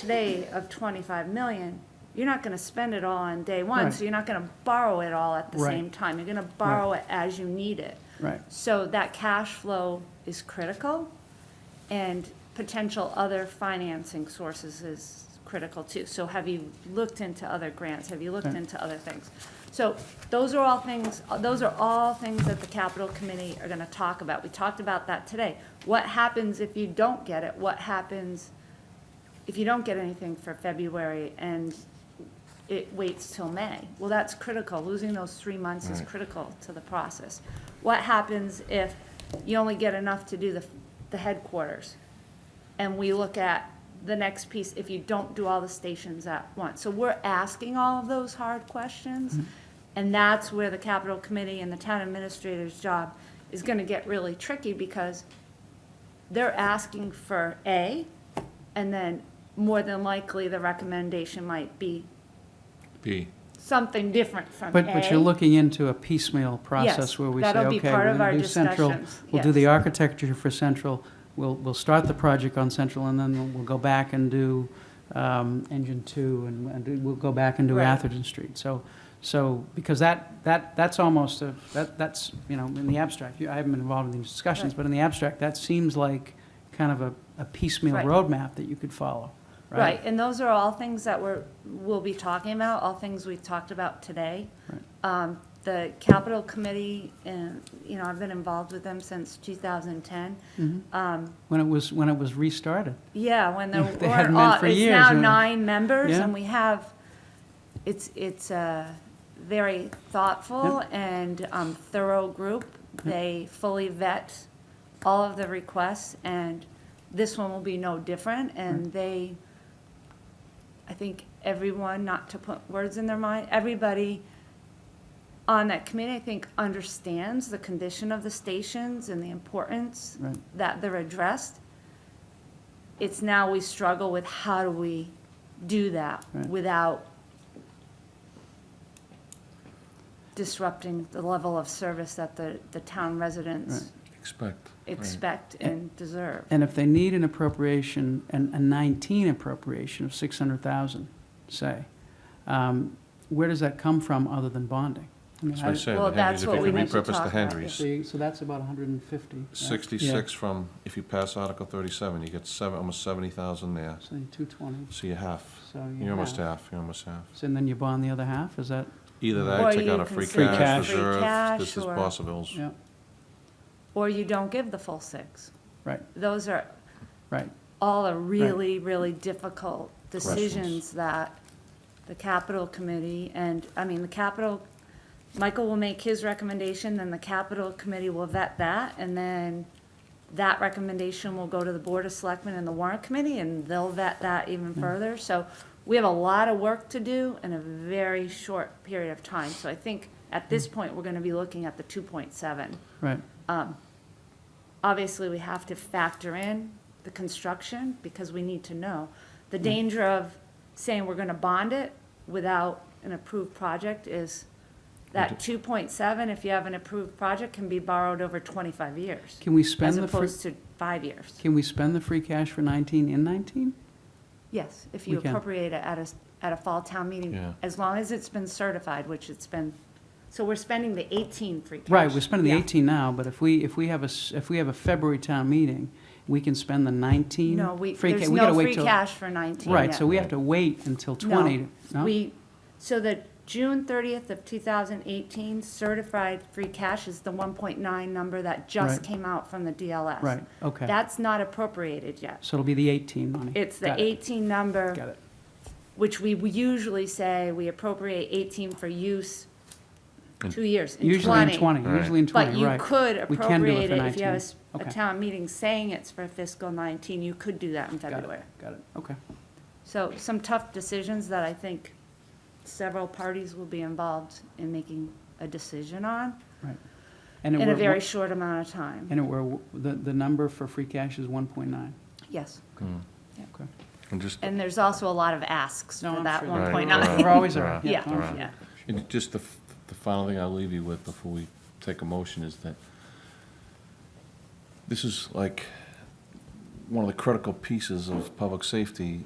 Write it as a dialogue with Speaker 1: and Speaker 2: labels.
Speaker 1: today of 25 million, you're not going to spend it all on day one,
Speaker 2: Right.
Speaker 1: so you're not going to borrow it all at the
Speaker 2: Right.
Speaker 1: same time. You're going to borrow it as you need it.
Speaker 2: Right.
Speaker 1: So that cash flow is critical, and potential other financing sources is critical too. So have you looked into other grants? Have you looked
Speaker 2: Okay.
Speaker 1: into other things? So those are all things, those are all things that the capital committee are gonna talk about. We talked about that today. What happens if you don't get it? What happens if you don't get anything for February and it waits till May? Well, that's critical. Losing those three months is critical to the process. What happens if you only get enough to do the, the headquarters? And we look at the next piece, if you don't do all the stations at once. So we're asking all of those hard questions. And that's where the capital committee and the town administrator's job is gonna get really tricky because they're asking for A, and then more than likely, the recommendation might be
Speaker 3: B.
Speaker 1: something different from A.
Speaker 2: But, but you're looking into a piecemeal
Speaker 1: Yes,
Speaker 2: process where we say, okay,
Speaker 1: that'll be
Speaker 2: we're
Speaker 1: part of
Speaker 2: going
Speaker 1: our
Speaker 2: to do central,
Speaker 1: discussions,
Speaker 2: we'll do the
Speaker 1: yes.
Speaker 2: architecture for central, we'll, we'll start the project on central, and then we'll- we'll go back and do um, engine two, and, and do- we'll go back and do
Speaker 1: Right.
Speaker 2: Atherton Street. So, so, because that, that, that's almost a, that, that's, you know, in the abstract, you- I haven't been involved in these discussions,
Speaker 1: Right.
Speaker 2: but in the abstract, that seems like kind of a, a piecemeal
Speaker 1: Right.
Speaker 2: roadmap that you could follow,
Speaker 1: Right,
Speaker 2: right?
Speaker 1: and those are all things that we're, we'll be talking about, all things we've talked about today.
Speaker 2: Right.
Speaker 1: Um, The capital committee, and, you know, I've been involved with them since 2010. Um,
Speaker 2: Mm-hmm. When it was, when it was restarted.
Speaker 1: Yeah, when there
Speaker 2: They hadn't
Speaker 1: were,
Speaker 2: been
Speaker 1: all-
Speaker 2: for
Speaker 1: it's
Speaker 2: years,
Speaker 1: now
Speaker 2: yeah.
Speaker 1: nine members,
Speaker 2: Yeah.
Speaker 1: and we have, it's, it's a very thoughtful and um, thorough group. They fully vet all of the requests, and this one will be no different, and they, I think everyone, not to put words in their mind, everybody on that committee, I think, understands the condition of the stations and the importance
Speaker 2: Right.
Speaker 1: that they're addressed. It's now we struggle with how do we do that
Speaker 2: Right.
Speaker 1: without disrupting the level of service that the, the town residents
Speaker 3: Expect. right.
Speaker 1: expect and deserve.
Speaker 2: And if they need an appropriation, an, a 19 appropriation of 600,000, say, um, where does that come from other than bonding? I mean,
Speaker 3: That's what I
Speaker 2: I-
Speaker 3: said,
Speaker 1: Well,
Speaker 3: the Henrys,
Speaker 1: that's
Speaker 3: if
Speaker 1: what
Speaker 3: you
Speaker 1: we
Speaker 3: can
Speaker 1: need to
Speaker 3: repurpose
Speaker 1: talk
Speaker 3: the
Speaker 1: about,
Speaker 3: Henrys.
Speaker 2: So you- so that's about 150. right?
Speaker 3: Sixty-six from, if you pass Article thirty-seven, you get seven, almost seventy thousand there.
Speaker 2: Yeah, So 220,
Speaker 3: So you're half.
Speaker 2: so you
Speaker 3: You're almost
Speaker 2: have-
Speaker 3: half, you're almost half.
Speaker 2: So and then you bond the other half, is that,
Speaker 3: Either
Speaker 1: Or
Speaker 3: that, take
Speaker 1: you
Speaker 3: out a
Speaker 1: can
Speaker 3: free
Speaker 1: save
Speaker 2: Free
Speaker 3: cash
Speaker 2: cash.
Speaker 1: free
Speaker 3: reserve,
Speaker 1: cash
Speaker 3: this is
Speaker 1: or-
Speaker 3: possibles.
Speaker 2: yeah,
Speaker 1: Or you don't give the full six.
Speaker 2: right,
Speaker 1: Those are
Speaker 2: right.
Speaker 1: all are really, really difficult decisions
Speaker 3: Questions.
Speaker 1: that the capital committee and, I mean, the capital, Michael will make his recommendation, then the capital committee will vet that, and then that recommendation will go to the board of selectmen and the warrant committee, and they'll vet that even further. So we have a lot of work to do in a very short period of time. So I think at this point, we're gonna be looking at the two point seven
Speaker 2: Right,
Speaker 1: Um, obviously, we have to factor in the construction, because we need to know.
Speaker 2: Hmm.
Speaker 1: The danger of saying we're gonna bond it without an approved project is that two point seven, if you have an approved project, can be borrowed over twenty-five years,
Speaker 2: can we
Speaker 1: as
Speaker 2: spend the, free-
Speaker 1: opposed to five years.
Speaker 2: can we spend the free cash for 19 in 19?
Speaker 1: Yes, if you
Speaker 2: We can.
Speaker 1: appropriate it at a, s- at a fall town meeting,
Speaker 3: Yeah.
Speaker 1: as long as it's been certified, which it's been, so we're spending the eighteen free cash.
Speaker 2: Right, we're spending the
Speaker 1: Yeah.
Speaker 2: 18 now, but if we, if we have a, s- if we have a February town meeting, we can spend the 19?
Speaker 1: No, we,
Speaker 2: free ca-
Speaker 1: there's
Speaker 2: we gotta
Speaker 1: no
Speaker 2: wait
Speaker 1: free
Speaker 2: till-
Speaker 1: cash for nineteen
Speaker 2: Right,
Speaker 1: yet.
Speaker 2: so we have to wait until 20,
Speaker 1: No,
Speaker 2: no?
Speaker 1: we, so the June thirtieth of two thousand eighteen certified free cash is the one point nine number that just
Speaker 2: Right.
Speaker 1: came out from the DLS.
Speaker 2: Right, okay.
Speaker 1: That's not appropriated yet.
Speaker 2: So it'll be the 18 money.
Speaker 1: It's the
Speaker 2: Got it,
Speaker 1: eighteen
Speaker 2: Got
Speaker 1: number,
Speaker 2: it,
Speaker 1: which we usually say we appropriate eighteen for use
Speaker 3: In-
Speaker 1: two years, in
Speaker 2: usually
Speaker 1: twenty.
Speaker 2: in 20,
Speaker 3: Right.
Speaker 2: usually in
Speaker 1: But
Speaker 2: 20,
Speaker 1: you
Speaker 2: right.
Speaker 1: could
Speaker 2: We can do it
Speaker 1: appropriate
Speaker 2: for
Speaker 1: it if you have a
Speaker 2: 19.
Speaker 1: s- a
Speaker 2: Okay.
Speaker 1: town meeting saying it's for fiscal nineteen, you could do that in
Speaker 2: Got it,
Speaker 1: February.
Speaker 2: Got it, okay.
Speaker 1: So some tough decisions that I think several parties will be involved in making a decision on
Speaker 2: And it
Speaker 1: in a
Speaker 2: were-
Speaker 1: very short amount of time.
Speaker 2: And it were, the, the number for free cash is 1.9,
Speaker 1: Yes.
Speaker 3: Mm.
Speaker 2: okay.
Speaker 3: And just,
Speaker 1: And there's also a lot of asks
Speaker 2: No,
Speaker 1: for
Speaker 2: I'm
Speaker 1: that
Speaker 2: sure
Speaker 1: one
Speaker 3: there
Speaker 1: point
Speaker 3: are.
Speaker 1: nine.
Speaker 3: Right.
Speaker 2: We're always
Speaker 3: Right.
Speaker 2: around.
Speaker 1: Yeah,
Speaker 2: I'm sure.
Speaker 1: yeah.
Speaker 3: and just the, f- the final thing I'll leave you with before we take a motion is that this is like one of the critical pieces of public safety